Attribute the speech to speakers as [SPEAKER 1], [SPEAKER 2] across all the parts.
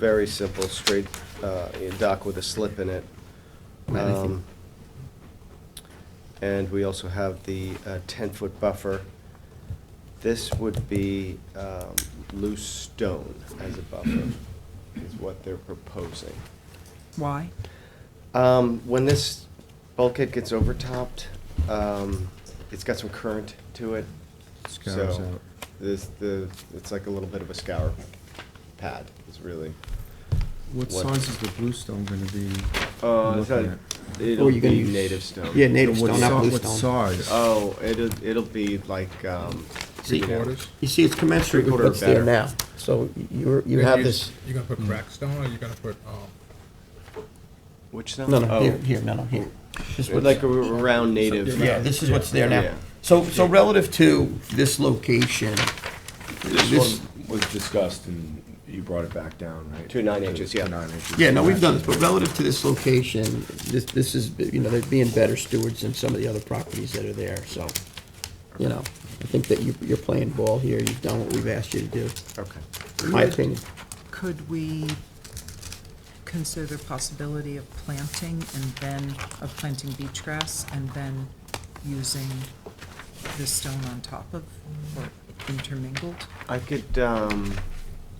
[SPEAKER 1] very simple, straight, uh, a dock with a slip in it.
[SPEAKER 2] Right, I think-
[SPEAKER 1] Um, And we also have the uh, ten-foot buffer. This would be um, loose stone as a buffer, is what they're proposing.
[SPEAKER 3] Why?
[SPEAKER 1] Um, When this bulkhead gets overtopped, um, it's got some current to it.
[SPEAKER 2] Scours
[SPEAKER 1] so
[SPEAKER 2] out.
[SPEAKER 1] This, the, it's like a little bit of a scour pad, is really.
[SPEAKER 2] What
[SPEAKER 1] What-
[SPEAKER 2] size is the blue stone gonna be?
[SPEAKER 1] Uh,
[SPEAKER 2] looking
[SPEAKER 1] it's
[SPEAKER 2] at?
[SPEAKER 1] not- it'll
[SPEAKER 4] you're gonna
[SPEAKER 1] be
[SPEAKER 4] use-
[SPEAKER 1] native stone.
[SPEAKER 4] Yeah, native
[SPEAKER 2] What
[SPEAKER 4] stone, not
[SPEAKER 2] si-
[SPEAKER 4] blue
[SPEAKER 2] what
[SPEAKER 4] stone.
[SPEAKER 5] Uh,
[SPEAKER 2] size?
[SPEAKER 1] Oh, it'll, it'll be like, um.
[SPEAKER 4] See,
[SPEAKER 1] you know,
[SPEAKER 2] Quarters?
[SPEAKER 4] You see, it's commensurate with
[SPEAKER 1] Three-quarter
[SPEAKER 4] what's there
[SPEAKER 1] better.
[SPEAKER 4] now. So you you have this,
[SPEAKER 6] You're gonna put crack stone, or you're gonna put, um,
[SPEAKER 1] Which stone?
[SPEAKER 4] no, no,
[SPEAKER 1] Oh,
[SPEAKER 4] here, here, no, no, here. This is
[SPEAKER 1] Like
[SPEAKER 4] what's-
[SPEAKER 1] a r- round native.
[SPEAKER 4] Yeah, this is what's there
[SPEAKER 1] Yeah.
[SPEAKER 4] now. So, so relative to this location,
[SPEAKER 5] This
[SPEAKER 4] this,
[SPEAKER 5] one was discussed and you brought it back down, right?
[SPEAKER 1] To nine inches,
[SPEAKER 5] To
[SPEAKER 1] yeah.
[SPEAKER 5] nine inches.
[SPEAKER 4] yeah, no, we've done this, but relative to this location, this, this is, you know, they're being better stewards than some of the other properties that are there, so, you know, I think that you, you're playing ball here, you've done what we've asked you to do,
[SPEAKER 1] Okay.
[SPEAKER 4] in my opinion.
[SPEAKER 3] Could we consider possibility of planting and then, of planting beach grass and then using the stone on top of, or intermingled?
[SPEAKER 1] I could, um,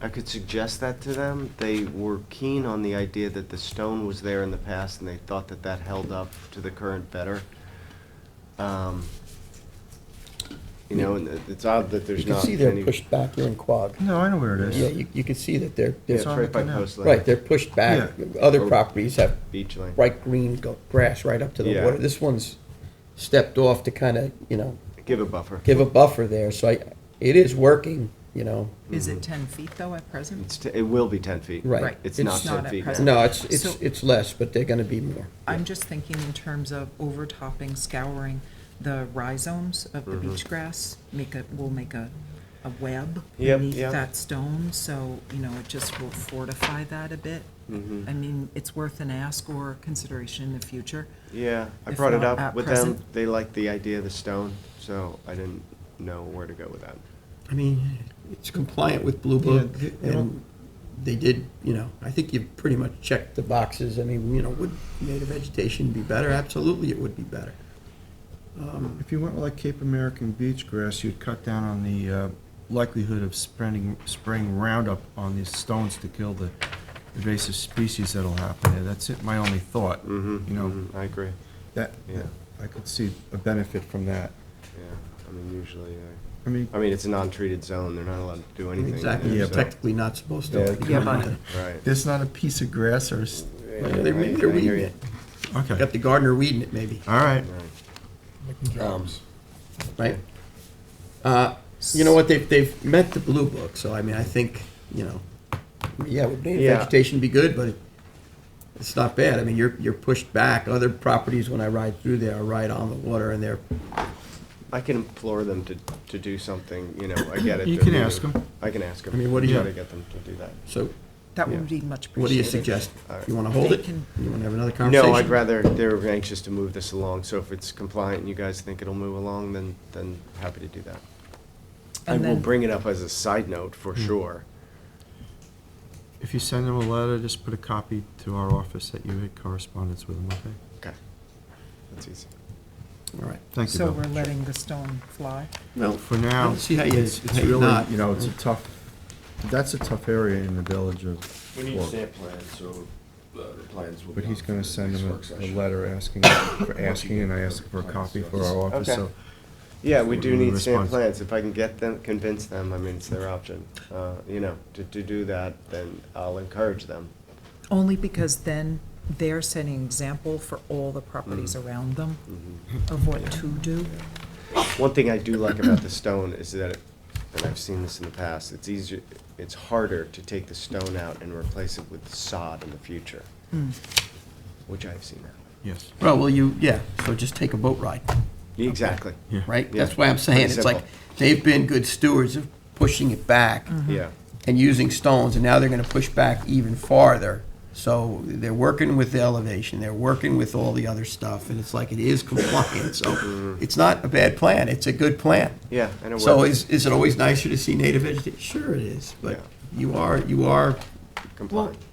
[SPEAKER 1] I could suggest that to them. They were keen on the idea that the stone was there in the past, and they thought that that held up to the current better. Um, You know, and it- it's odd that
[SPEAKER 4] You
[SPEAKER 1] there's
[SPEAKER 4] can
[SPEAKER 1] not
[SPEAKER 4] see they're
[SPEAKER 1] any-
[SPEAKER 4] pushed back, they're in quag.
[SPEAKER 2] No, I know where it
[SPEAKER 4] Yeah,
[SPEAKER 2] is.
[SPEAKER 4] you, you can see that they're,
[SPEAKER 1] Yeah,
[SPEAKER 4] they're,
[SPEAKER 1] it's
[SPEAKER 2] on
[SPEAKER 1] right
[SPEAKER 2] the
[SPEAKER 1] by
[SPEAKER 2] canal.
[SPEAKER 1] Post Lake.
[SPEAKER 4] right, they're pushed back. Other
[SPEAKER 1] Or-
[SPEAKER 4] properties have
[SPEAKER 1] Beach Lane.
[SPEAKER 4] bright green go- grass right up to the
[SPEAKER 1] Yeah.
[SPEAKER 4] water. This one's stepped off to kind of, you know,
[SPEAKER 1] Give a buffer.
[SPEAKER 4] give a buffer there, so I, it is working, you know,
[SPEAKER 3] Is it ten feet though at present?
[SPEAKER 1] It's, t- it will be ten feet.
[SPEAKER 4] Right.
[SPEAKER 3] Right.
[SPEAKER 1] It's
[SPEAKER 4] It's
[SPEAKER 1] not
[SPEAKER 3] not
[SPEAKER 1] ten
[SPEAKER 3] at
[SPEAKER 1] feet.
[SPEAKER 3] present.
[SPEAKER 4] no, it's, it's,
[SPEAKER 3] So-
[SPEAKER 4] it's less, but they're gonna be more.
[SPEAKER 3] I'm just thinking in terms of overtopping, scouring the rhizomes of the
[SPEAKER 1] Mm-hmm.
[SPEAKER 3] beach grass, make a, we'll make a, a web
[SPEAKER 1] Yep,
[SPEAKER 3] beneath
[SPEAKER 1] yep.
[SPEAKER 3] that stone, so, you know, it just will fortify that a bit.
[SPEAKER 1] Mm-hmm.
[SPEAKER 3] I mean, it's worth an ask or consideration in the future.
[SPEAKER 1] Yeah, I
[SPEAKER 3] If
[SPEAKER 1] brought it
[SPEAKER 3] not
[SPEAKER 1] up
[SPEAKER 3] at
[SPEAKER 1] with them.
[SPEAKER 3] present.
[SPEAKER 1] They liked the idea of the stone, so I didn't know where to go with that.
[SPEAKER 4] I mean, it's compliant with Blue
[SPEAKER 2] Yeah,
[SPEAKER 4] Book,
[SPEAKER 2] they- they
[SPEAKER 4] and
[SPEAKER 2] don't-
[SPEAKER 4] they did, you know, I think you've pretty much checked the boxes. I mean, you know, would native vegetation be better? Absolutely, it would be better.
[SPEAKER 2] If you went with like Cape American beach grass, you'd cut down on the uh, likelihood of spreading, spraying Roundup on these stones to kill the invasive species that'll happen there. That's it, my only thought.
[SPEAKER 4] Mm-hmm.
[SPEAKER 1] Mhm,
[SPEAKER 2] You know,
[SPEAKER 1] mhm, I agree,
[SPEAKER 2] that,
[SPEAKER 1] Yeah.
[SPEAKER 2] I could see a benefit from that.
[SPEAKER 1] yeah. I mean, usually, I,
[SPEAKER 2] I mean,
[SPEAKER 1] I mean, it's a non-treated zone. They're not allowed to do anything. in
[SPEAKER 4] Exactly,
[SPEAKER 1] there,
[SPEAKER 2] Yeah,
[SPEAKER 4] it's
[SPEAKER 1] so-
[SPEAKER 2] but-
[SPEAKER 4] technically not supposed
[SPEAKER 1] Yeah.
[SPEAKER 4] to.
[SPEAKER 3] Yeah, but-
[SPEAKER 1] Right.
[SPEAKER 2] there's not a piece of grass or, s-
[SPEAKER 1] Yeah,
[SPEAKER 4] They're, they're
[SPEAKER 1] I- I
[SPEAKER 4] weeding
[SPEAKER 1] hear you.
[SPEAKER 4] it.
[SPEAKER 2] okay,
[SPEAKER 4] Got the gardener weeding it, maybe,
[SPEAKER 2] all right.
[SPEAKER 1] Right.
[SPEAKER 6] making jobs.
[SPEAKER 4] right? Uh, You know what, they've, they've met the blue book, so I mean, I think, you know, yeah, would native
[SPEAKER 1] Yeah.
[SPEAKER 4] vegetation be good, but it- it's not bad. I mean, you're, you're pushed back. Other properties, when I ride through there, are right on the water and they're,
[SPEAKER 1] I can implore them to, to do something, you know, I get it.
[SPEAKER 2] You
[SPEAKER 1] they're
[SPEAKER 2] can
[SPEAKER 1] new.
[SPEAKER 2] ask 'em.
[SPEAKER 1] I can ask them.
[SPEAKER 4] I mean, what do you-
[SPEAKER 1] Try to get them to do that.
[SPEAKER 4] so
[SPEAKER 3] That would be much appreciated.
[SPEAKER 4] what do you suggest?
[SPEAKER 1] All right.
[SPEAKER 4] You wanna hold
[SPEAKER 3] They
[SPEAKER 4] it?
[SPEAKER 3] can-
[SPEAKER 4] You wanna have another conversation?
[SPEAKER 1] No, I'd rather, they're anxious to move this along, so if it's compliant and you guys think it'll move along, then, then happy to do that. I
[SPEAKER 3] And
[SPEAKER 1] will
[SPEAKER 3] then-
[SPEAKER 1] bring it up as a side note for sure.
[SPEAKER 2] If you send them a letter, just put a copy to our office that you had correspondence with them, okay?
[SPEAKER 1] Okay. That's easy.
[SPEAKER 4] All right.
[SPEAKER 2] Thank you,
[SPEAKER 3] So we're
[SPEAKER 2] Bill.
[SPEAKER 3] letting the stone fly?
[SPEAKER 4] Well,
[SPEAKER 2] For now,
[SPEAKER 4] don't see how you-
[SPEAKER 2] it's it's
[SPEAKER 4] how you
[SPEAKER 2] really,
[SPEAKER 4] not.
[SPEAKER 2] you know, it's a tough, that's a tough area in the village of.
[SPEAKER 5] We need
[SPEAKER 2] Well,
[SPEAKER 5] stamp plans, so uh, the plans will be.
[SPEAKER 2] But he's
[SPEAKER 5] on
[SPEAKER 2] gonna
[SPEAKER 5] for
[SPEAKER 2] send
[SPEAKER 5] next
[SPEAKER 2] them
[SPEAKER 5] work
[SPEAKER 2] a, a
[SPEAKER 5] session.
[SPEAKER 2] letter asking, for asking, and I asked for a copy for our office,
[SPEAKER 1] Okay.
[SPEAKER 2] so.
[SPEAKER 1] Yeah, we do
[SPEAKER 2] Wouldn't
[SPEAKER 1] need stamp
[SPEAKER 2] respond.
[SPEAKER 1] plans. If I can get them, convince them, I mean, it's their option, uh, you know, to, to do that, then I'll encourage them.
[SPEAKER 3] Only because then they're setting example for all the properties
[SPEAKER 1] Mm-hmm.
[SPEAKER 3] around them of what to do.
[SPEAKER 1] One thing I do like about the stone is that, it- and I've seen this in the past, it's easier, it's harder to take the stone out and replace it with sod in the future, which I've seen that.
[SPEAKER 2] Yes.
[SPEAKER 4] Well, well, you, yeah, so just take a boat ride.
[SPEAKER 1] Exactly.
[SPEAKER 2] Yeah.
[SPEAKER 4] right?
[SPEAKER 1] Yeah.
[SPEAKER 4] That's why I'm saying,
[SPEAKER 1] Pretty
[SPEAKER 4] it's like,
[SPEAKER 1] simple.
[SPEAKER 4] they've been good stewards of pushing it back
[SPEAKER 3] Mm-hmm.
[SPEAKER 1] Yeah,
[SPEAKER 4] and using stones, and now they're gonna push back even farther. So they're working with the elevation, they're working with all the other stuff, and it's like, it is compliant, so it's not a bad plan, it's a good plan.
[SPEAKER 1] Mm-hmm. yeah, and it
[SPEAKER 4] So
[SPEAKER 1] works.
[SPEAKER 4] is, is it always nicer to see native vegetation? Sure it is, but
[SPEAKER 1] Yeah.
[SPEAKER 4] you are, you are
[SPEAKER 1] complying.